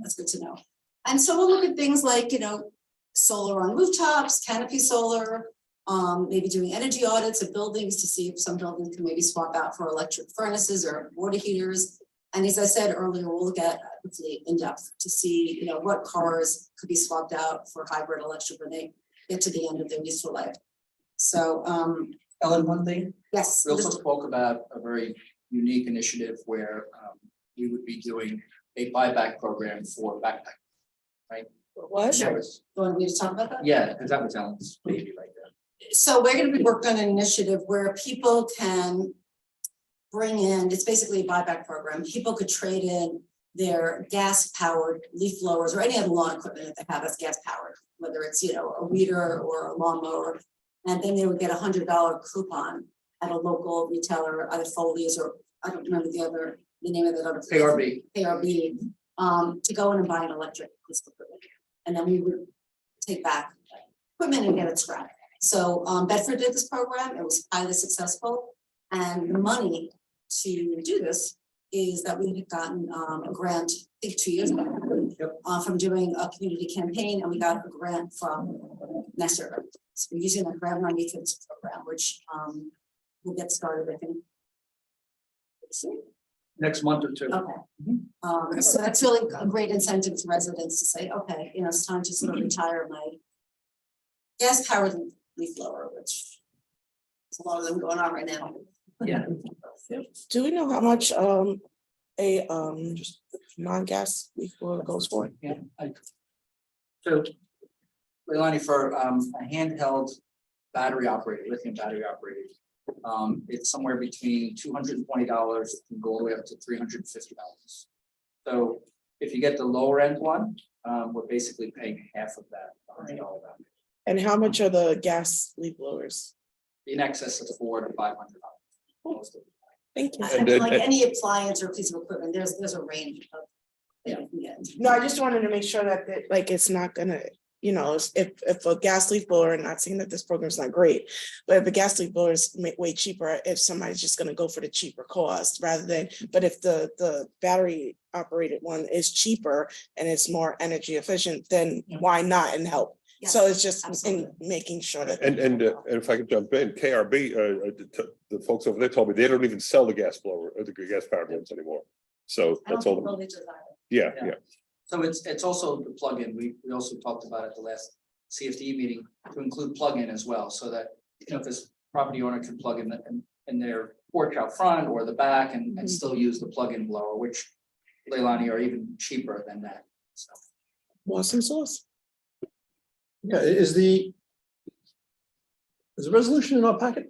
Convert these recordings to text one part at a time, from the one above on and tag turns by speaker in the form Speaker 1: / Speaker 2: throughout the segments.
Speaker 1: that's good to know. And so we'll look at things like, you know, solar on rooftops, canopy solar, um, maybe doing energy audits of buildings to see if some buildings can maybe swap out for electric furnaces or water heaters. And as I said earlier, we'll look at uh, hopefully in depth to see, you know, what cars could be swapped out for hybrid electric when they get to the end of their useful life. So, um,
Speaker 2: Ellen, one thing,
Speaker 1: yes.
Speaker 2: we also
Speaker 1: Mr.
Speaker 2: spoke about a very unique initiative where um we would be doing a buyback program for backpack. Oh,
Speaker 3: What?
Speaker 1: Sure. You want me to talk about that?
Speaker 2: Yeah, because that was Ellen's baby right there.
Speaker 1: so we're gonna be working on an initiative where people can bring in, it's basically a buyback program, people could trade in their gas powered leaf blowers or any other lawn equipment that they have that's gas powered, whether it's, you know, a weeder or a lawnmower. And then they would get a hundred dollar coupon at a local retailer, either Foley's or, I don't remember the other, the name of that other. place.
Speaker 2: KRB,
Speaker 1: ARB um to go in and buy an electric piece of equipment. And then we would take back equipment and get it scrapped. So um Bedford did this program, it was highly successful. And the money to do this is that we had gotten um a grant, I think two years ago.
Speaker 2: Yep.
Speaker 1: Uh from doing a community campaign and we got a grant from Nestor. So we're using the grant money for this program, which um will get started, I think. Soon.
Speaker 2: next month or two.
Speaker 1: Okay. Um, so that's really a great incentive to residents to say, okay, you know, it's time to sort of retire my gas powered leaf blower, which there's a lot of them going on right now.
Speaker 2: Yeah.
Speaker 3: Do we know how much um a um non-gas leaf blower goes for?
Speaker 2: Yeah. I- So, Leilani, for um a handheld battery operated, lithium battery operated, um it's somewhere between two hundred and twenty dollars and go all the way up to three hundred and fifty dollars. So if you get the lower end one, um we're basically paying half of that, hundred dollar value,
Speaker 3: And how much are the gas leaf blowers?
Speaker 2: in excess of four to five hundred dollars.
Speaker 3: Thank you.
Speaker 1: I I feel like any appliance or piece of equipment, there's, there's a range of. that you can get.
Speaker 3: No, I just wanted to make sure that that like it's not gonna, you know, if if a gas leaf blower, and not saying that this program's not great. But if a gas leaf blower is ma- way cheaper, if somebody's just gonna go for the cheaper cost rather than, but if the the battery operated one is cheaper and it's more energy efficient, then why not and help? So
Speaker 1: Yes.
Speaker 3: it's just in
Speaker 1: absolutely.
Speaker 3: making sure that.
Speaker 4: And, and, uh, and if I could jump in, KRB, uh, uh, the t- the folks over there told me they don't even sell the gas blower, or the gas powered ones anymore. So
Speaker 1: I don't
Speaker 4: that's
Speaker 1: think
Speaker 4: all,
Speaker 1: Village is either.
Speaker 4: yeah,
Speaker 2: Yeah.
Speaker 4: yeah,
Speaker 2: So it's it's also the plug-in, we we also talked about at the last CFD meeting to include plug-in as well, so that, you know, if this property owner can plug in the- in in their porch out front or the back and and still use the plug-in blower, which Leilani are even cheaper than that, so.
Speaker 3: Want some sauce?
Speaker 5: Yeah, i- is the. Is the resolution in our packet?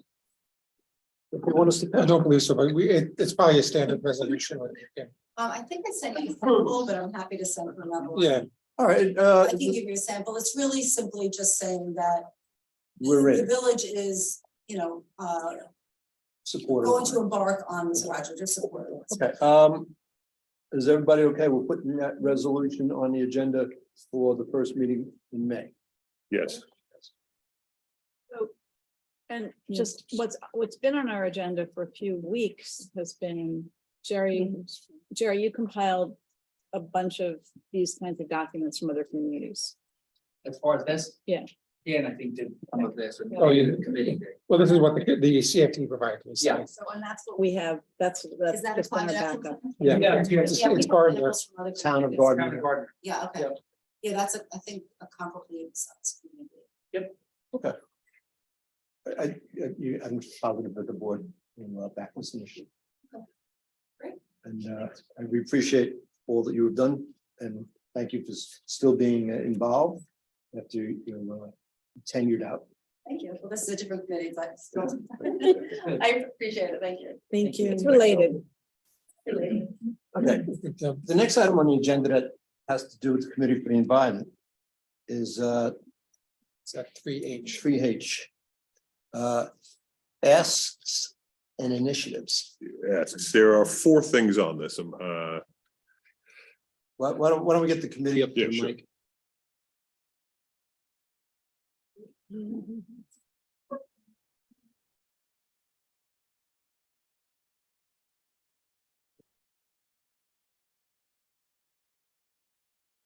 Speaker 5: If you want us to,
Speaker 6: I don't believe so, but we, it, it's probably a standard resolution. when you can-
Speaker 1: Um, I think I sent you a sample, but I'm happy to send another one.
Speaker 6: Yeah,
Speaker 5: all right, uh,
Speaker 1: I can give you a sample. It's really simply just saying that
Speaker 5: we're
Speaker 1: the
Speaker 5: ready,
Speaker 1: village is, you know, uh, going
Speaker 5: supportive.
Speaker 1: to embark on this project or support. it.
Speaker 5: Okay, um, is everybody okay with putting that resolution on the agenda for the first meeting in May?
Speaker 4: yes.
Speaker 7: And
Speaker 3: Yeah.
Speaker 7: just what's, what's been on our agenda for a few weeks has been, Jerry, Jerry, you compiled a bunch of these kinds of documents from other communities.
Speaker 2: As far as this?
Speaker 7: Yeah.
Speaker 2: Yeah, and I think did some of this. and-
Speaker 6: Oh, yeah.
Speaker 2: Committee.
Speaker 6: well, this is what the, the CFT provided. me, so
Speaker 2: Yeah.
Speaker 1: So, and that's what we,
Speaker 7: We have, that's,
Speaker 1: is
Speaker 7: that's
Speaker 1: that a
Speaker 7: just been our
Speaker 1: climate action?
Speaker 7: backup.
Speaker 1: plan?
Speaker 6: Yeah,
Speaker 2: Yeah.
Speaker 6: it's, it's
Speaker 1: Yeah, we
Speaker 6: it's
Speaker 1: have
Speaker 6: part of the
Speaker 1: samples from other
Speaker 5: Town of
Speaker 1: communities.
Speaker 5: Gardner.
Speaker 2: Town of Gardner.
Speaker 1: Yeah, okay.
Speaker 2: Yep.
Speaker 1: Yeah, that's, a I think, a comparably sized community.
Speaker 5: I, I, you, I'm positive that the board will uh, back this initiative.
Speaker 1: Okay. Great.
Speaker 5: And, uh, and we appreciate all that you have done and thank you for s- still being uh, involved after you're uh, tenured out.
Speaker 1: Thank you. Well, this is a different committee, but still.
Speaker 2: Good.
Speaker 1: I appreciate it. Thank you.
Speaker 3: Thank you.
Speaker 7: It's related.
Speaker 5: Okay,
Speaker 6: it, um,
Speaker 5: the next item on the agenda that has to do with the Committee for the Environment is, uh,
Speaker 6: It's at three H.
Speaker 5: three H. Uh, asks and initiatives.
Speaker 4: Yes, there are four things on this, um, uh,
Speaker 5: Why, why don't, why don't we get the committee up
Speaker 4: Yeah,
Speaker 5: to
Speaker 4: sure.
Speaker 5: Mike?